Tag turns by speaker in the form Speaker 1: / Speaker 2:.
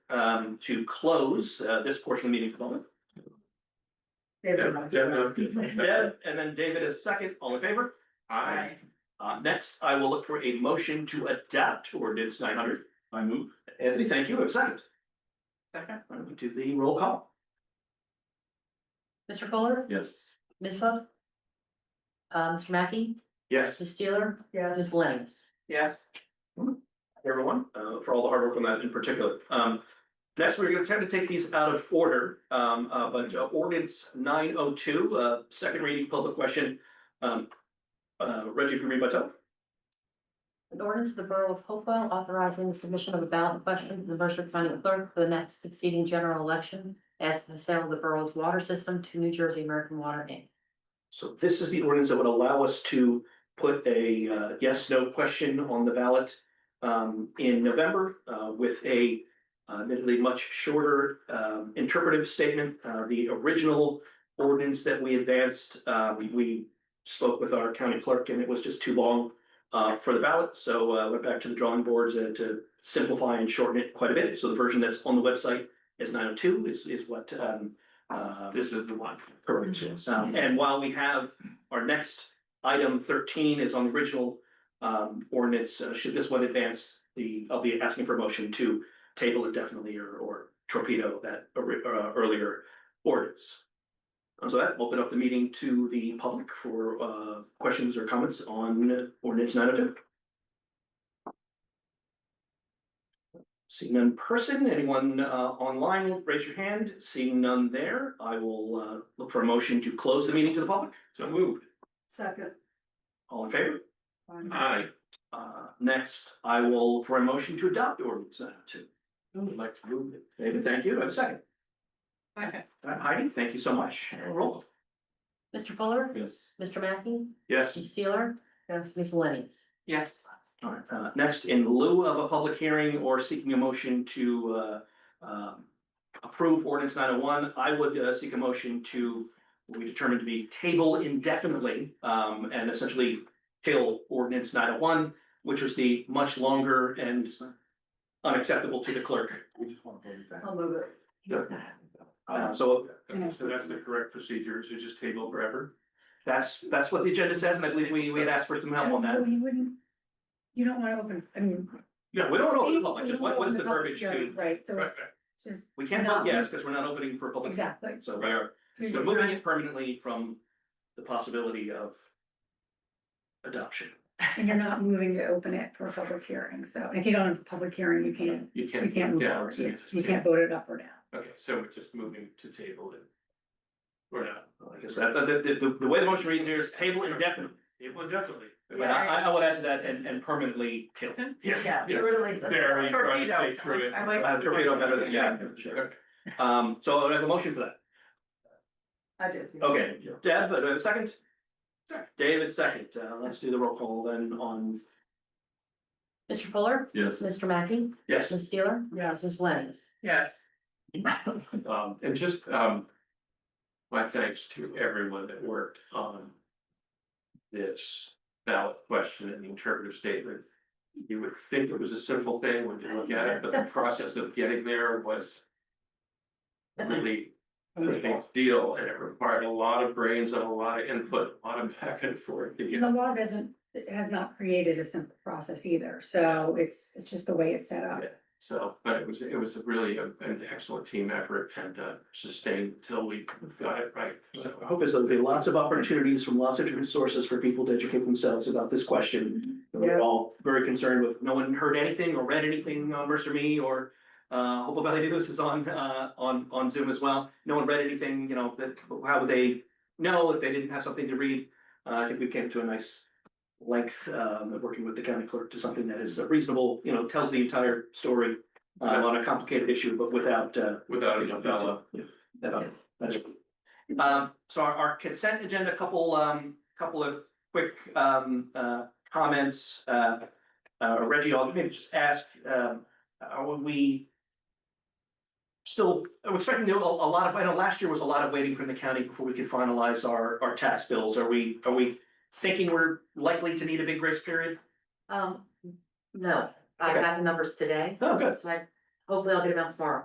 Speaker 1: um, to close, uh, this portion of the meeting for the moment. Deb, and then David is second, all in favor?
Speaker 2: I,
Speaker 1: Uh, next, I will look for a motion to adapt ordinance nine hundred.
Speaker 2: I move.
Speaker 1: Anthony, thank you, I have a second.
Speaker 2: Second.
Speaker 1: Why don't we do the roll call?
Speaker 3: Mr. Fuller,
Speaker 2: Yes.
Speaker 3: Ms. Hook. Uh, Mr. Mackey,
Speaker 1: Yes.
Speaker 3: Ms. Steeler, Ms. Lennox.
Speaker 2: Yes.
Speaker 1: Everyone, uh, for all the hard work on that in particular. Um, next, we're gonna attempt to take these out of order, um, uh, but uh, ordinance nine oh two, uh, second reading, public question. Um, uh, Reggie, if you read by title.
Speaker 3: An ordinance of the Borough of Hopewell authorizing the submission of a ballot question to the Mercer County Clerk for the next succeeding general election as to the sale of the borough's water system to New Jersey American Water Inc.
Speaker 1: So this is the ordinance that would allow us to put a uh, yes, no question on the ballot um, in November uh, with a uh, admittedly much shorter um, interpretive statement. Uh, The original ordinance that we advanced, uh, we- we spoke with our county clerk and it was just too long uh, for the ballot. So uh, went back to the drawing boards uh, to simplify and shorten it quite a bit. So the version that's on the website is nine oh two is is what um, uh,
Speaker 2: This is the one.
Speaker 1: Correct, yes. Um, and while we have, our next item thirteen is on the original um ordinance, uh, should this one advance, the, I'll be asking for a motion to table it definitely or or torpedo that ori- uh, earlier ordinance. And so that open up the meeting to the public for uh questions or comments on ordinance nine oh two. Seeing none in person, anyone uh online, raise your hand. Seeing none there, I will uh look for a motion to close the meeting to the public. So moved.
Speaker 4: Second.
Speaker 1: All in favor?
Speaker 2: I
Speaker 1: Uh, next, I will look for a motion to adopt ordinance nine oh two.
Speaker 2: would like to move it.
Speaker 1: David, thank you. I have a second.
Speaker 4: Second.
Speaker 1: Uh, Heidi, thank you so much. Roll.
Speaker 3: Mr. Fuller,
Speaker 2: Yes.
Speaker 3: Mr. Mackey,
Speaker 2: Yes.
Speaker 3: Ms. Steeler,
Speaker 4: Yes.
Speaker 3: Ms. Lennox.
Speaker 4: Yes.
Speaker 1: All right, uh, next, in lieu of a public hearing or seeking a motion to, uh, um, approve ordinance nine oh one, I would, uh, seek a motion to, what we determined to be table indefinitely, um, and essentially till ordinance nine oh one, which was the much longer and unacceptable to the clerk.
Speaker 2: We just want to vote it back.
Speaker 4: I'll move it.
Speaker 1: Uh, so
Speaker 2: Okay, So that's the correct procedure, so just table forever?
Speaker 1: that's, that's what the agenda says, and I believe we, we had asked for some help on that.
Speaker 5: Well, You wouldn't, you don't wanna open, I mean.
Speaker 1: Yeah, we don't know, the
Speaker 5: basically,
Speaker 1: public,
Speaker 5: you
Speaker 1: just what,
Speaker 5: don't
Speaker 1: what is
Speaker 5: open
Speaker 1: the
Speaker 5: public
Speaker 1: verbiage
Speaker 5: hearing,
Speaker 1: to,
Speaker 5: Right, so
Speaker 2: Right,
Speaker 5: it's just,
Speaker 1: we can't
Speaker 5: No.
Speaker 1: vote yes, because we're not opening for a public. hearing.
Speaker 5: exactly.
Speaker 1: So we are, so moving it permanently from the possibility of adoption.
Speaker 5: And you're not moving to open it for a public hearing, so if you don't have a public hearing, you can't,
Speaker 2: You can't.
Speaker 5: you can't move
Speaker 2: Yeah,
Speaker 5: forward,
Speaker 2: so
Speaker 5: you
Speaker 2: just
Speaker 5: you
Speaker 2: table.
Speaker 5: can't vote it up or down.
Speaker 2: Okay, so we're just moving to table it. Or not.
Speaker 1: Well, I guess that, that- that- the, the way the motion reads here is table indefinitely.
Speaker 2: Table definitely.
Speaker 1: But I, I- I would add to that and, and permanently kill.
Speaker 2: Yeah. Yeah.
Speaker 4: really.
Speaker 2: Very trying to think through it.
Speaker 4: I like.
Speaker 1: Uh, torpedo better than, yeah, sure.
Speaker 2: Okay.
Speaker 1: Um, so I would have a motion for that.
Speaker 4: I did.
Speaker 1: Okay, Deb, uh, do I have a second? David, second. Uh, let's do the roll call then on,
Speaker 3: Mr. Fuller,
Speaker 2: Yes.
Speaker 3: Mr. Mackey,
Speaker 2: Yes.
Speaker 3: Ms. Steeler,
Speaker 4: Yes.
Speaker 3: Ms. Lennox.
Speaker 4: Yes.
Speaker 2: Um, and just, um, my thanks to everyone that worked on this ballot question and the interpretive statement. You would think it was a simple thing when you look at it, but the process of getting there was really a big deal and it required a lot of brains and a lot of input, a lot of back and forth. to
Speaker 5: And the
Speaker 2: get-
Speaker 5: law doesn't, it has not created a simple process either, so it's, it's just the way it's set up.
Speaker 2: So, but it was, it was really a- an excellent team effort and uh, sustained until we got it right.
Speaker 1: so I
Speaker 2: So,
Speaker 1: hope is there'll be lots of opportunities from lots of different sources for people to educate themselves about this question. And We're
Speaker 4: Yeah.
Speaker 1: all very concerned with, no one heard anything or read anything on Mercer Me or uh Hopewell Valley News is on uh on on Zoom as well. No one read anything, you know, that how would they know if they didn't have something to read? Uh, I think we came to a nice length um of working with the county clerk to something that is reasonable, you know, tells the entire story uh, on a complicated issue, but without uh
Speaker 2: without a novella.
Speaker 1: yeah, that- that's right. Um, so our, our consent agenda, a couple, um, couple of quick, um, uh, comments, uh. Uh, Reggie, I'll maybe just ask, um, are we? Still, I'm expecting a, a lot of, I know last year was a lot of waiting from the county before we could finalize our, our tax bills. Are we, are we thinking we're likely to need a big grace period?
Speaker 3: Um, no, I
Speaker 1: Okay.
Speaker 3: have the numbers today,
Speaker 1: Oh, good.
Speaker 3: so I, hopefully I'll get them out tomorrow.